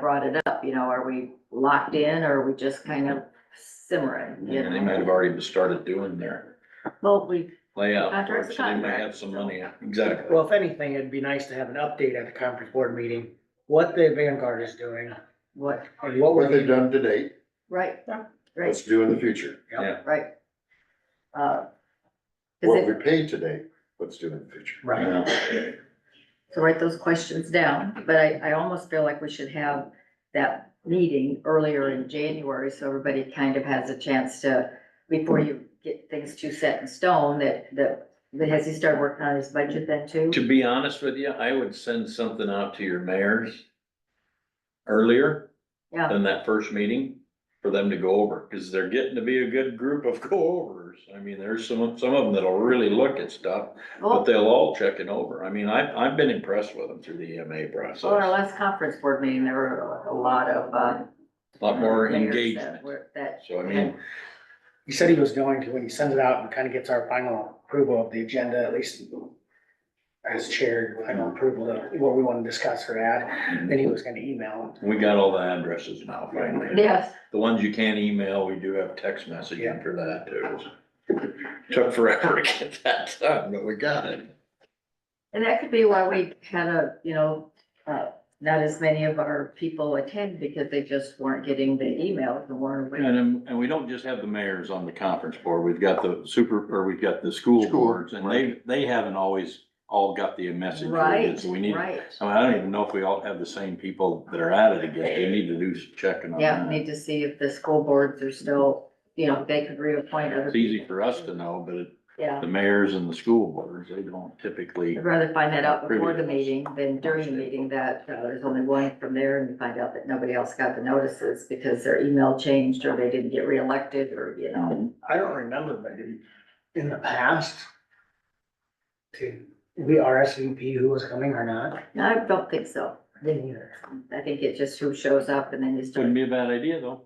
brought it up, you know, are we locked in or are we just kind of simmering? you And they know? might have already started doing their Well, we, layout, Contract's so a they might contract, have some so- money, exactly. Well, if anything, it'd be nice to have an update at the conference board meeting, what the Vanguard is doing what, and what What we're, they've done to date, right, let's right, do in the future. right. Uh, Is What we it, paid today, let's do in the future. right, Yeah. to write those questions down, but I, I almost feel like we should have that meeting earlier in January, so everybody kind of has a chance to, before you get things too set in stone, that, that, that has he started working on his budget then too? To be honest with you, I would send something out to your mayors earlier Yeah. than that first meeting for them to go over, because they're getting to be a good group of go-overs. I mean, there's some, some of them that'll really look at stuff, but Well, they'll all check it over. I mean, I've, I've been impressed with them through the EMA process. well, in our last conference board meeting, there were a lot of, uh. A Lot more mayors that engagement. were- That, So I mean, he said he was going to, when he sends it out and kind of gets our final approval of the agenda, at least as chair, final approval of what we want to discuss or add, then he was gonna email we got all the addresses now finally. yes, The ones you can't email, we do have text messaging for that too. Took forever to get that done, but we got it. and that could be why we had a, you know, uh, not as many of our people attend because they just weren't getting the emails, the warrant. And, um, and we don't just have the mayors on the conference board, we've got the super, or we've got the school School, boards, and they, they haven't always all got the message. we did, Right, So we need, I mean, right. I don't even know if we all have the same people that are at it again, we need to do some checking on Yeah, that. need to see if the school boards are still, you know, they could reappoint other. It's easy people. for us to know, but it- Yeah, the mayors and the school boards, they don't typically, I'd rather find that out before the Previous. meeting than during the meeting that, uh, there's only one from there and you find out that nobody else got the notices because their email changed or they didn't get reelected or, you know. him. I don't remember, but in, in the past, to, we RSVP who was coming or not, No, I don't think so. didn't either. I think it's just who shows up and then you wouldn't start, be a bad idea though,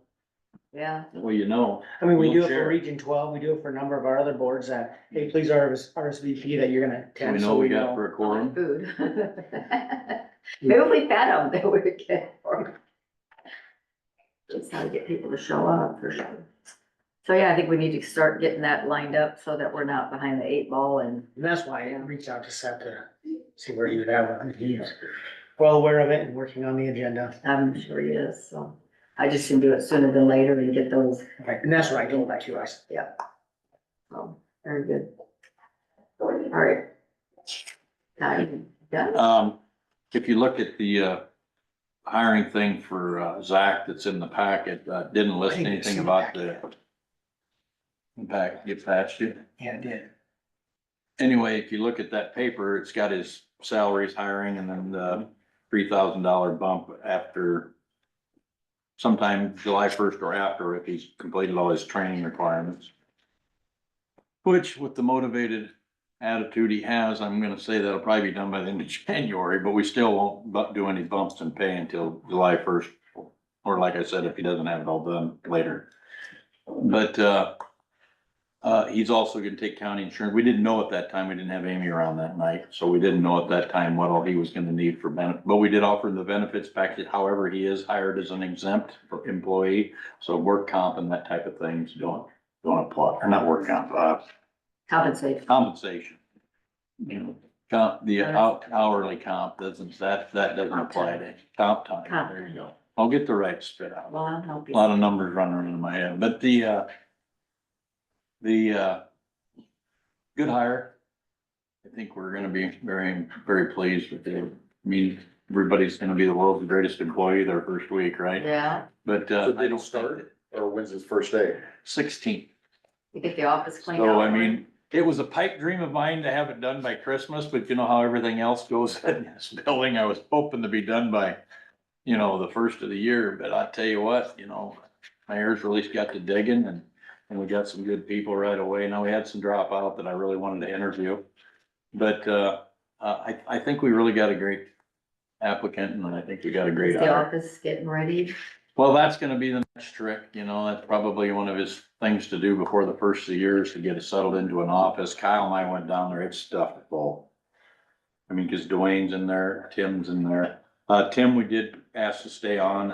yeah, well, you know. I mean, we do it for Wheelchair. Region twelve, we do it for a number of our other boards that, hey, please RS RSVP that you're gonna We attend, so know we got for a quorum. food. Maybe if we fed them, they would get more. Just how to get people to show up for sure. So yeah, I think we need to start getting that lined up so that we're not behind the eight ball and And that's why I reached out to Seth to see where he would have, it. he's well aware of it and working on the agenda. I'm sure he is, so. I just can do it sooner than later and get those, Right, And that's what I told him too, I said, so, very good. All right. Now you done? Um, if you look at the, uh, hiring thing for, uh, Zach that's in the packet, uh, didn't list Hey, it's anything in the about the packet. impact, get past you. yeah, it did. Anyway, if you look at that paper, it's got his salaries, hiring, and then the three thousand dollar bump after sometime July first or after, if he's completed all his training requirements. Which with the motivated attitude he has, I'm gonna say that'll probably be done by the end of January, but we still won't bu- do any bumps in pay until July first. Or like I said, if he doesn't have it all done later. But, uh, uh, he's also gonna take county insurance. We didn't know at that time, we didn't have Amy around that night, so we didn't know at that time what all he was gonna need for benefit. But we did offer him the benefits package, however, he is hired as an exempt employee, so work comp and that type of things don't, don't apply, or not work comp, uh, Compensate. compensation. You know, comp, the hou- hourly comp doesn't, that, that doesn't apply to comp time, there you go. I'll get the right spit out. Well, I'll help A you. Lot of numbers running around my head, but the, uh, the, uh, good hire. I think we're gonna be very, very pleased with it. I mean, everybody's gonna be the world's greatest employee their first week, right? Yeah, But, So uh, they don't start, or when's his first day? sixteen. you get the office cleaned out. So I mean, it was a pipe dream of mine to have it done by Christmas, but you know how everything else goes in this building. I was hoping to be done by, you know, the first of the year, but I tell you what, you know, mayor's really got to digging and, and we got some good people right away. Now, we had some dropout that I really wanted to interview. But, uh, uh, I, I think we really got a great applicant and I think we got a great Is the hire. office getting ready? Well, that's gonna be the next trick, you know, that's probably one of his things to do before the first of the year is to get it settled into an office. Kyle and I went down there, it's stuffed full. I mean, cause Dwayne's in there, Tim's in there. Uh, Tim, we did ask to stay on